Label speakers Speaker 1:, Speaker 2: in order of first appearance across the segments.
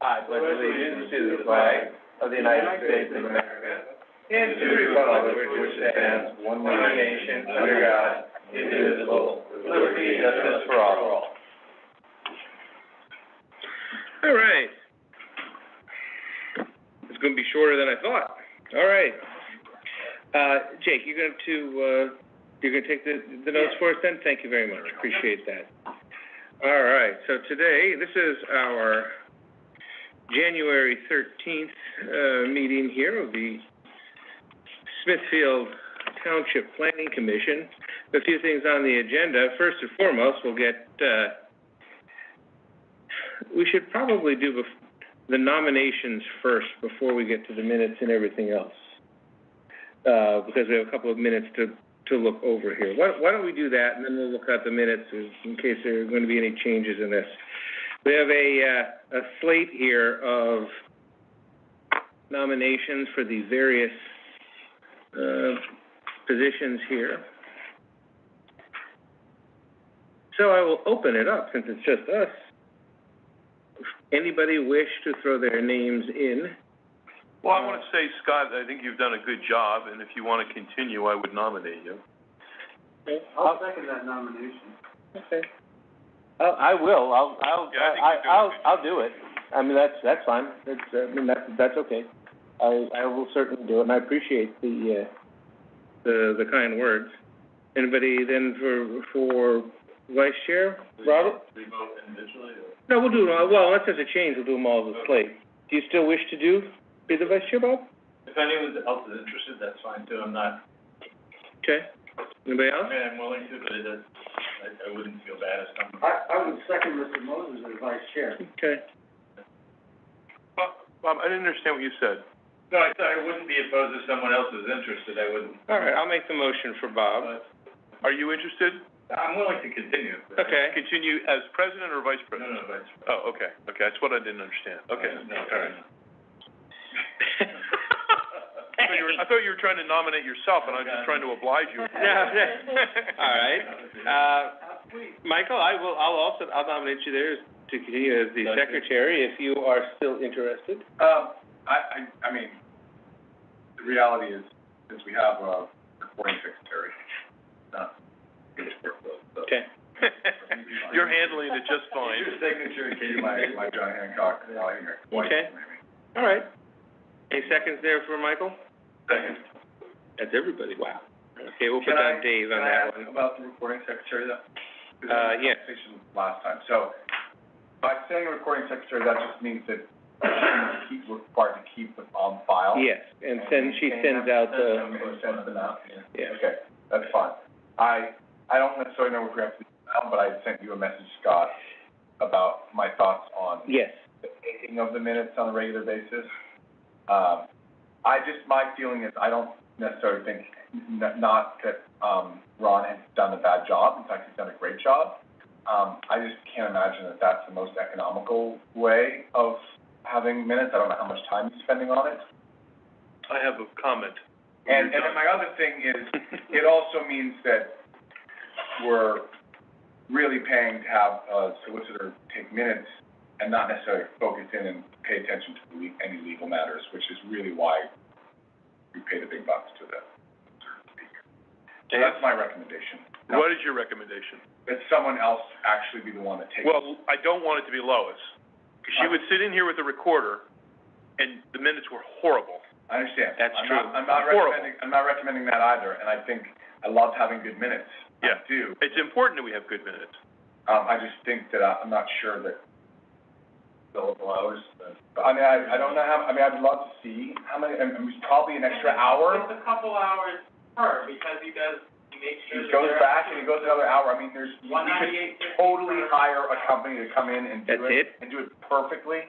Speaker 1: I pledge allegiance to the flag of the United States of America and to the republic for which it stands, one nation, under God, indivisible, with liberty and justice for all.
Speaker 2: All right. It's gonna be shorter than I thought. All right. Uh, Jake, you're going to, uh, you're gonna take the, the notes for us then? Thank you very much. Appreciate that. All right, so today, this is our January thirteenth, uh, meeting here of the Smithfield Township Planning Commission. A few things on the agenda. First and foremost, we'll get, uh, we should probably do bef- the nominations first before we get to the minutes and everything else. Uh, because we have a couple of minutes to, to look over here. Why, why don't we do that and then we'll look at the minutes in in case there are going to be any changes in this. We have a, uh, a slate here of nominations for the various, uh, positions here. So I will open it up since it's just us anybody wish to throw their names in?
Speaker 3: Well, I want to say, Scott, I think you've done a good job, and if you want to continue, I would nominate you.
Speaker 1: I'll second that nomination. Oh, I will, I'll, I'll,
Speaker 3: Yeah, I think
Speaker 1: I,
Speaker 3: you're doing
Speaker 1: I'll,
Speaker 3: good.
Speaker 1: I'll do it. I mean, that's, that's fine, that's, I mean, that's, that's okay. I, I will certainly do it, and I appreciate the, uh,
Speaker 2: The, the kind words. Anybody then for, for vice chair? Robert?
Speaker 3: Do you vote individually, or?
Speaker 2: No, we'll do, it all- well, unless there's a change, we'll do them all as a slate. Do you still wish to do, be the vice chair, Bob?
Speaker 3: If anyone else is interested, that's fine too, I'm not,
Speaker 2: Okay. Anybody else?
Speaker 3: mean, I'm willing to, but it does, I, I wouldn't feel bad if someone.
Speaker 4: I, I would second Mr. Moses as vice chair.
Speaker 2: Okay.
Speaker 3: Bob, I didn't understand what you said. No, I said I wouldn't be opposed if someone else was interested, I wouldn't.
Speaker 2: All right, I'll make the motion for Bob.
Speaker 3: Are you interested? I'm willing to continue.
Speaker 2: Okay.
Speaker 3: Continue as president or vice president? No, no, vice president. Oh, okay, okay, that's what I didn't understand, okay. No, I thought you were, I thought you were trying to nominate yourself, and I was just trying to oblige you.
Speaker 2: No, all right. Uh, Michael, I will, I'll also, I'll nominate you there to continue as the
Speaker 3: Thank you.
Speaker 2: secretary if you are still interested.
Speaker 4: Um, I, I, I mean, the reality is, is we have a recording secretary, not English workload, so.
Speaker 2: Okay.
Speaker 3: You're handling it just fine.
Speaker 4: Your signature gave my, my John Hancock, I'll hear it twice,
Speaker 2: Okay.
Speaker 4: maybe.
Speaker 2: All right. Any seconds there for Michael?
Speaker 4: Second.
Speaker 2: That's everybody, wow. Okay, we'll put
Speaker 4: Can
Speaker 2: down
Speaker 4: I-
Speaker 2: Dave on
Speaker 4: Can I
Speaker 2: that
Speaker 4: ask
Speaker 2: one.
Speaker 4: about the recording secretary though?
Speaker 2: Uh,
Speaker 4: 'Cause we had a
Speaker 2: yes.
Speaker 4: conversation Last time, so by saying recording secretary, that just means that she's keep, required to keep them on file.
Speaker 2: Yes, and send, she sends out the,
Speaker 4: She sends them out.
Speaker 2: yeah,
Speaker 4: Okay, that's fine. I, I don't necessarily know if we have to, do that, but I sent you a message, Scott, about my thoughts on
Speaker 2: yes.
Speaker 4: the taking of the minutes on a regular basis. Um, I just, my feeling is, I don't necessarily think, n- not that, um, Ron has done a bad job, in fact, he's done a great job. Um, I just can't imagine that that's the most economical way of having minutes, I don't know how much time he's spending on it.
Speaker 3: I have a comment.
Speaker 4: And, and then my other thing is, it also means that we're really paying to have a solicitor take minutes and not necessarily focus in and pay attention to le- any legal matters, which is really why we pay the big bucks to the solicitor to be here. So that's my recommendation. Now,
Speaker 3: What is your recommendation?
Speaker 4: That someone else actually be the one that takes.
Speaker 3: Well, I don't want it to be Lois, 'cause she would sit in here with a recorder, and the minutes were horrible.
Speaker 4: I understand.
Speaker 2: That's
Speaker 4: I'm
Speaker 2: true.
Speaker 4: not- I'm not
Speaker 3: Horrible.
Speaker 4: recommending, I'm not recommending that either, and I think, I love having good minutes.
Speaker 3: Yeah.
Speaker 4: I do.
Speaker 3: It's important that we have good minutes.
Speaker 4: Um, I just think that I, I'm not sure that. Billable hours. I mean, I, I don't know how, I mean, I'd love to see how many, I mean, it's probably an extra hour.
Speaker 5: It's a couple hours per, because he does, he makes sure
Speaker 4: He
Speaker 5: that
Speaker 4: goes
Speaker 5: they're-
Speaker 4: back and he goes another hour. I mean, there's, you
Speaker 5: One
Speaker 4: could
Speaker 5: ninety-eight fifty.
Speaker 4: totally hire a company to come in and do it.
Speaker 2: That's it?
Speaker 4: And do it perfectly.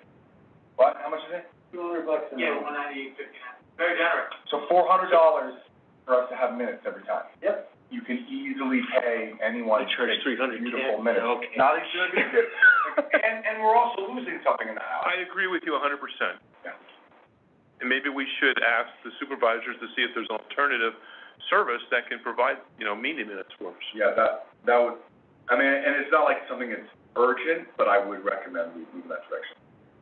Speaker 4: What, how much is it?
Speaker 5: Two hundred bucks
Speaker 4: an
Speaker 5: Yeah,
Speaker 4: hour.
Speaker 5: one ninety-eight fifty-nine, very generous.
Speaker 4: So four hundred dollars for us to have minutes every time.
Speaker 5: Yep.
Speaker 4: You can easily pay anyone to take
Speaker 2: three hundred.
Speaker 4: beautiful minutes. Not as good as good. And, and we're also losing something in that hour.
Speaker 3: I agree with you a hundred percent.
Speaker 4: Yeah.
Speaker 3: And maybe we should ask the supervisors to see if there's an alternative service that can provide, you know, meeting minutes for us.
Speaker 4: Yeah, that, that would, I mean, and it's not like something that's urgent, but I would recommend we move in that direction.